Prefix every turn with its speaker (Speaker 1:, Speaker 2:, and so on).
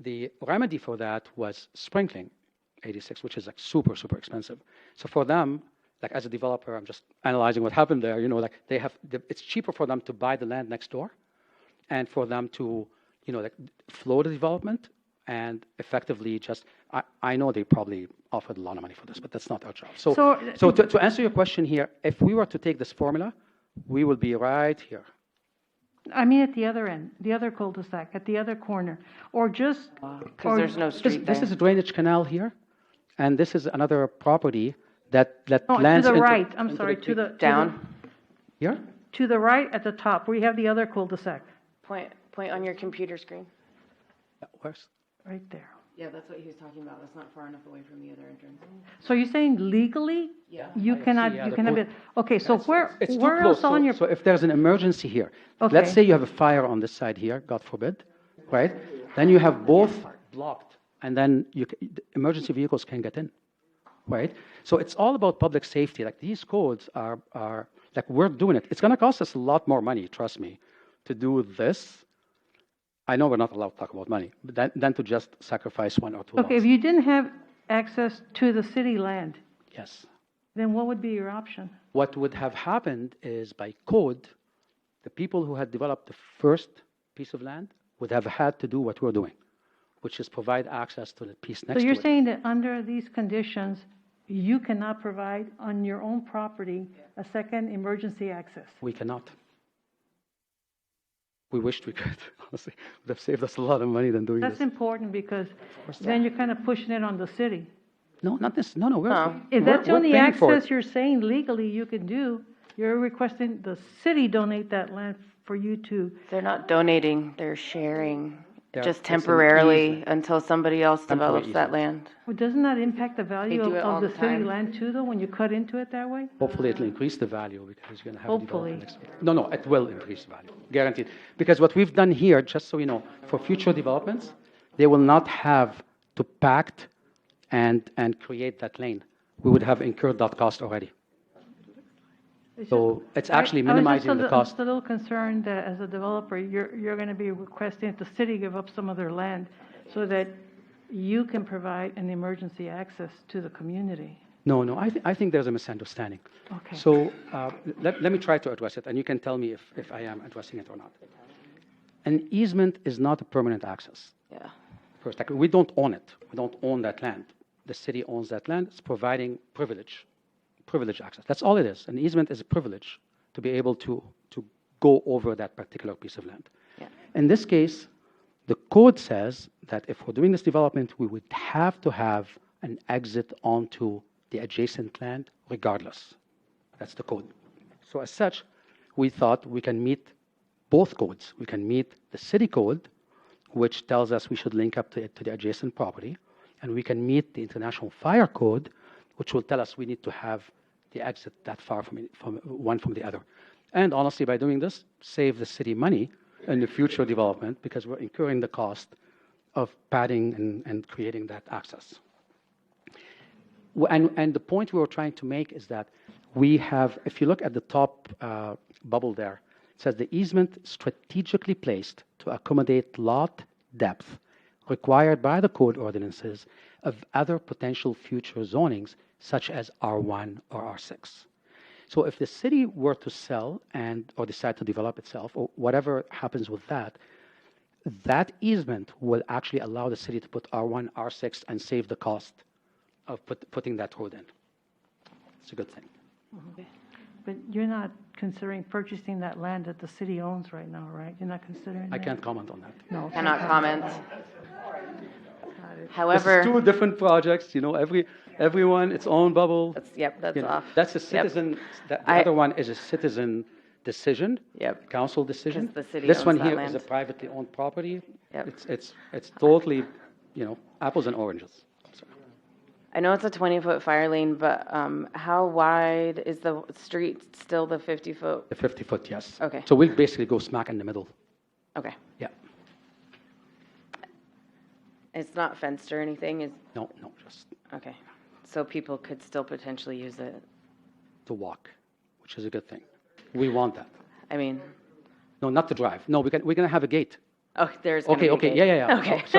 Speaker 1: the remedy for that was sprinkling 86, which is like super, super expensive. So for them, like as a developer, I'm just analyzing what happened there. You know, like they have, the, it's cheaper for them to buy the land next door, and for them to, you know, like flow the development and effectively just. I, I know they probably offered a lot of money for this, but that's not our job. So, so,
Speaker 2: So-
Speaker 1: to, to answer your question here, if we were to take this formula, we would be right here.
Speaker 2: I mean, at the other end, the other cul-de-sac, at the other corner, or just.
Speaker 3: because
Speaker 2: or-
Speaker 3: there's no
Speaker 1: This,
Speaker 3: street
Speaker 1: this is
Speaker 3: there.
Speaker 1: a drainage canal here, and this is another property that that
Speaker 2: No, to
Speaker 1: lands
Speaker 2: the
Speaker 1: into-
Speaker 2: right, I'm
Speaker 1: into
Speaker 2: sorry, to the. to the-
Speaker 3: Down,
Speaker 1: here.
Speaker 2: To the right at the top, we have the other cul-de-sac,
Speaker 3: point, point on your computer screen.
Speaker 1: Yeah, Where's
Speaker 2: right there.
Speaker 3: Yeah, that's what he was talking about, that's not far enough away from the other entrance.
Speaker 2: So you're saying legally?
Speaker 3: Yeah.
Speaker 2: You cannot,
Speaker 1: yeah,
Speaker 2: you
Speaker 1: the
Speaker 2: cannot,
Speaker 1: point-
Speaker 2: be- okay, so where,
Speaker 1: It's too
Speaker 2: where
Speaker 1: close.
Speaker 2: else on
Speaker 1: so,
Speaker 2: your,
Speaker 1: so if there's an emergency here,
Speaker 2: Okay.
Speaker 1: let's say you have a fire on this side here, God forbid, right? Then you have both blocked, and then you, c- the emergency vehicles can get in, right? So it's all about public safety. Like these codes are, are like we're doing it. It's going to cost us a lot more money, trust me, to do this. I know we're not allowed to talk about money, but than, than to just sacrifice one or two.
Speaker 2: okay, if
Speaker 1: lots.
Speaker 2: you didn't have access to the city land,
Speaker 1: yes.
Speaker 2: then what would be your option?
Speaker 1: what would have happened is by code, the people who had developed the first piece of land would have had to do what we're doing, which is provide access to the piece next
Speaker 2: So you're
Speaker 1: to it.
Speaker 2: saying that under these conditions, you cannot provide on your own property a second emergency access?
Speaker 1: we cannot. We wished we could, honestly. Would have saved us a lot of money than doing
Speaker 2: That's
Speaker 1: this.
Speaker 2: important because then you're kind of pushing it on the city.
Speaker 1: No, not this. No, no. We're,
Speaker 2: If
Speaker 1: we're-
Speaker 2: that's the
Speaker 1: we're
Speaker 2: only
Speaker 1: paying for it.
Speaker 2: access you're saying legally you can do, you're requesting the city donate that land for you to,
Speaker 3: They're not donating, they're sharing,
Speaker 1: They're-
Speaker 3: just
Speaker 1: it's an
Speaker 3: temporarily
Speaker 1: easement.
Speaker 3: until somebody else
Speaker 1: Temporary
Speaker 3: develops that land.
Speaker 2: well, doesn't that impact the value
Speaker 3: do
Speaker 2: of
Speaker 3: it all
Speaker 2: of the
Speaker 3: the
Speaker 2: city
Speaker 3: time.
Speaker 2: land too, though, when you cut into it that way?
Speaker 1: Hopefully, it'll increase the value because you're going to have.
Speaker 2: Hopefully.
Speaker 1: development next week. No, no, it will increase the value, guaranteed. Because what we've done here, just so you know, for future developments, they will not have to pact and, and create that lane. We would have incurred that cost already.
Speaker 2: It's
Speaker 1: So it's
Speaker 2: I-
Speaker 1: actually
Speaker 2: I was just a
Speaker 1: minimizing the
Speaker 2: little-
Speaker 1: cost.
Speaker 2: just a little concerned that as a developer, you're, you're going to be requesting that the city give up some of their land so that you can provide an emergency access to the community.
Speaker 1: No, no, I, th- I think there's a misunderstanding.
Speaker 2: Okay.
Speaker 1: So uh, let, let me try to address it, and you can tell me if, if I am addressing it or not. An easement is not a permanent access.
Speaker 3: Yeah.
Speaker 1: First, like, we don't own it. We don't own that land. The city owns that land. It's providing privilege, privilege access. That's all it is. An easement is a privilege to be able to, to go over that particular piece of land.
Speaker 3: Yeah.
Speaker 1: In this case, the code says that if we're doing this development, we would have to have an exit onto the adjacent land regardless. That's the code. So as such, we thought we can meet both codes. We can meet the city code, which tells us we should link up to, it, to the adjacent property, and we can meet the international fire code, which will tell us we need to have the exit that far from, it- from one from the other. And honestly, by doing this, save the city money in the future development because we're incurring the cost of padding and, and creating that access. W- And, and the point we were trying to make is that we have, if you look at the top uh, bubble there, it says the easement strategically placed to accommodate lot depth required by the code ordinances of other potential future zonings such as R1 or R6. So if the city were to sell and or decide to develop itself or whatever happens with that, that easement will actually allow the city to put R1, R6, and save the cost of put, putting that road in. It's a good thing.
Speaker 2: But you're not considering purchasing that land that the city owns right now, right? You're not considering
Speaker 1: I
Speaker 2: that?
Speaker 1: can't comment on that.
Speaker 2: No.
Speaker 3: Cannot comment.
Speaker 1: This is
Speaker 3: However,
Speaker 1: two different projects, you know, every, everyone, its own bubble.
Speaker 3: That's- yep, that's
Speaker 1: you know.
Speaker 3: off.
Speaker 1: That's a
Speaker 3: Yep.
Speaker 1: citizen, that- the
Speaker 3: I-
Speaker 1: other one is a citizen decision.
Speaker 3: Yep.
Speaker 1: Council decision.
Speaker 3: 'Cause the city
Speaker 1: This
Speaker 3: owns
Speaker 1: one
Speaker 3: that
Speaker 1: here is a
Speaker 3: land.
Speaker 1: privately owned property.
Speaker 3: Yep.
Speaker 1: It's, it's, it's totally, you know, apples and oranges.
Speaker 3: I know it's a 20-foot fire lane, but um, how wide is the street still the 50-foot?
Speaker 1: The 50 foot, yes.
Speaker 3: Okay.
Speaker 1: So we'll basically go smack in the middle.
Speaker 3: Okay.
Speaker 1: Yeah.
Speaker 3: It's not fenced or anything, is,
Speaker 1: No, no, just
Speaker 3: okay. So people could still potentially use it.
Speaker 1: to walk, which is a good thing. We want that.
Speaker 3: I mean,
Speaker 1: No, not to drive. No, we can, we're going to have a gate.
Speaker 3: oh, there's gonna
Speaker 1: Okay,
Speaker 3: be a
Speaker 1: okay.
Speaker 3: gate.
Speaker 1: Yeah, yeah, yeah.
Speaker 3: Okay.
Speaker 1: Oh,